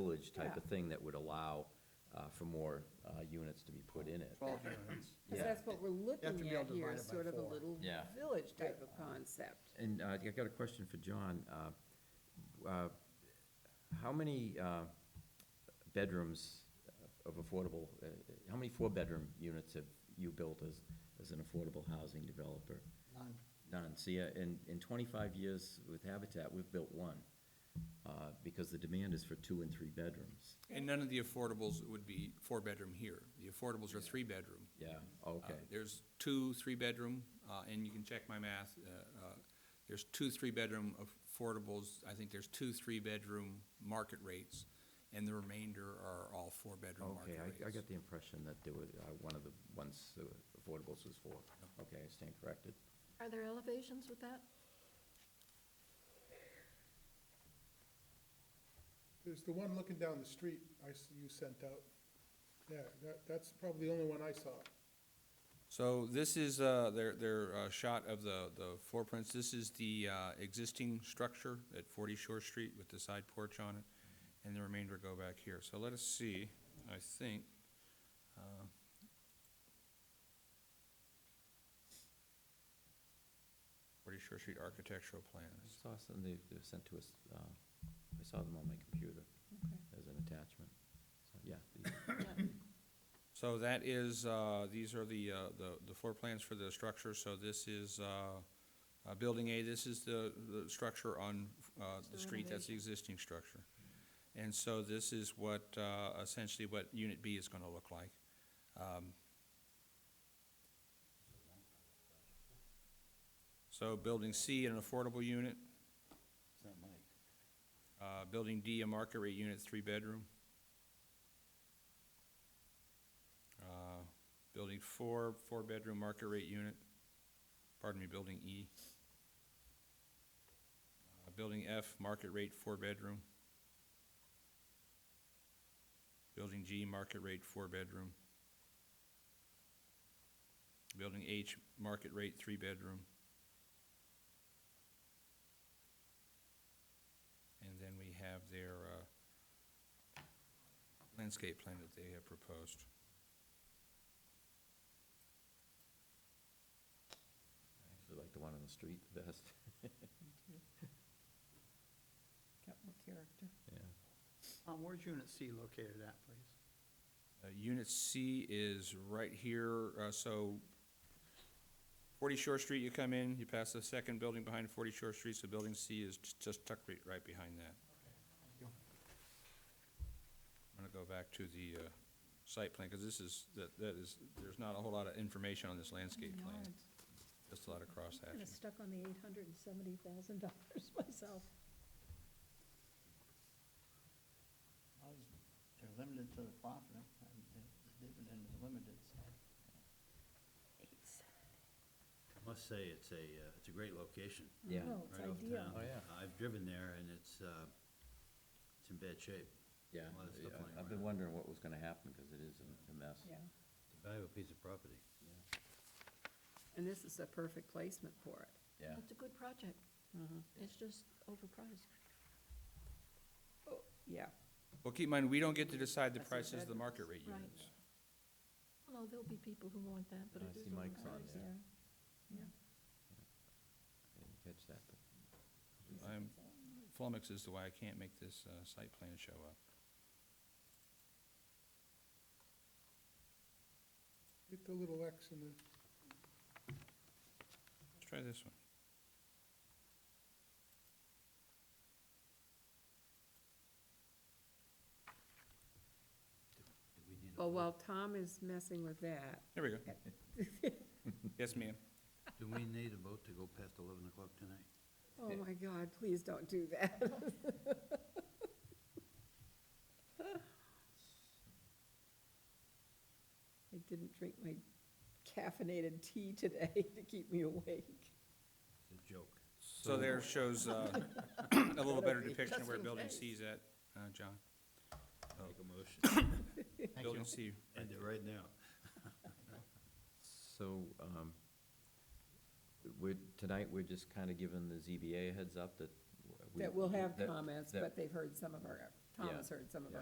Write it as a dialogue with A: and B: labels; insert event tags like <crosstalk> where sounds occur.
A: village type of
B: Yeah.
A: thing that would allow uh, for more uh, units to be put in it.
C: twelve units.
B: Because
A: Yeah.
B: that's what we're
C: be
B: looking
C: able
B: at
C: to
B: here,
C: divide
B: is
C: it by
B: sort of a
C: four.
B: little
A: Yeah.
B: village type of concept.
A: And uh, I got a question for John. Uh, uh, How many uh, bedrooms of affordable, uh, how many four-bedroom units have you built as, as an affordable housing developer?
C: None.
A: None. See, uh, in, in twenty-five years with Habitat, we've built one, uh, because the demand is for two and three bedrooms.
D: And none of the affordables would be four-bedroom here. The affordables are three-bedroom.
A: Yeah,
D: Uh,
A: okay,
D: There's two, three-bedroom, uh, and you can check my math. uh, uh, There's two, three-bedroom affordables. I think there's two, three-bedroom market rates, and the remainder are all four-bedroom market
A: okay,
D: rates.
A: I, I got the impression that there were, uh, one of the ones, the affordables was four. Okay, I stand corrected.
E: Are there elevations with that?
F: There's the one looking down the street I, s- you sent out. Yeah, that, that's probably the only one I saw.
D: So this is uh, their, their uh, shot of the, the floor prints. This is the uh, existing structure at 40 Shore Street with the side porch on it, and the remainder go back here. So let us see, I think. uh, Forty Shore Street architectural
A: I
D: plans.
A: saw some, they, they were sent to us, uh, I saw them on my computer as an attachment. So, Yeah, the-
D: So that is, uh, these are the, uh, the- the floor plans for the structure. So this is uh, uh, Building A, this is the, the structure on uh, the
E: the
D: street, that's the existing structure. And so this is what, uh, essentially what Unit B is going to look like. Um, So Building C, an affordable unit.
C: It's not Mike.
D: Uh, Building D, a market rate unit, three-bedroom. Uh, Building four, four-bedroom market rate unit, pardon me, building E. Uh, Building F, market rate, four-bedroom. Building G, market rate, four-bedroom. Building H, market rate, three-bedroom. And then we have their uh, landscape plan that they have proposed.
A: I actually like the one on the street the best,
B: <laughs>
A: <laughs>
B: Got more character.
A: yeah.
C: Um, where's unit C located at, please?
D: Uh, Unit C is right here, uh, so 40 Shore Street, you come in, you pass the second building behind 40 Shore Street, so building C is j- just tucked right, right behind that.
C: you.
D: I'm gonna go back to the uh, site plan, because this is, that that is, there's not a whole lot of information on this landscape plan, just a lot of cross
E: Kind of
D: hatching.
E: stuck on the eight hundred and seventy thousand dollars <laughs> myself.
C: Well, he's- They're limited to the profit, and the the dividend is limited, so.
G: I must say, it's a, uh, it's a great location.
A: Yeah.
E: No, it's
G: right off
E: ideal.
G: town.
A: Oh, yeah.
G: I've driven there and it's, uh, it's in bad shape.
A: Yeah,
G: A lot of stuff
A: I-
G: lying
A: I've been
G: around.
A: wondering what was gonna happen, because it is a- a mess.
B: Yeah.
G: It's a valuable piece of property.
B: And this is a perfect placement for it.
A: Yeah.
E: It's a good project.
B: Mm-hmm.
E: It's just overpriced.
B: Oh, Yeah,
D: Well, keep in mind, we don't get to decide the
B: That's the
D: prices of the market rate
E: Right.
D: units.
E: Well, no, there'll be people who want that, but
A: I
E: it is
A: see Mike's on
E: overpriced.
A: there.
E: Yeah.
A: I Didn't catch that, but
D: I'm, flummox is the why I can't make this uh, site plan show up.
F: Hit the little X in the,
D: Let's try this one.
G: Do we need a
E: Oh,
B: well,
G: vote?
B: while Tom is messing with that,
D: There we go. <laughs> Yes, ma'am.
G: Do we need a vote to go past eleven o'clock tonight?
B: oh my God, please don't do that. <laughs> I didn't drink my caffeinated tea today <laughs> to keep me awake.
G: It's a joke.
D: So there
C: <laughs>
D: shows uh, a little better depiction of where
B: Just in
D: Building
B: case.
D: C is at, uh, John.
G: Make a motion.
C: Thank you.
D: Building C,
G: End it right now.
A: So, um, we're, tonight, we're just kinda giving the ZBA a heads up that. w- we-
B: That we'll have
A: that-
B: comments,
A: that-
B: but they've heard some of our, Tom
A: Yeah,
B: has heard some of
A: yeah.
B: our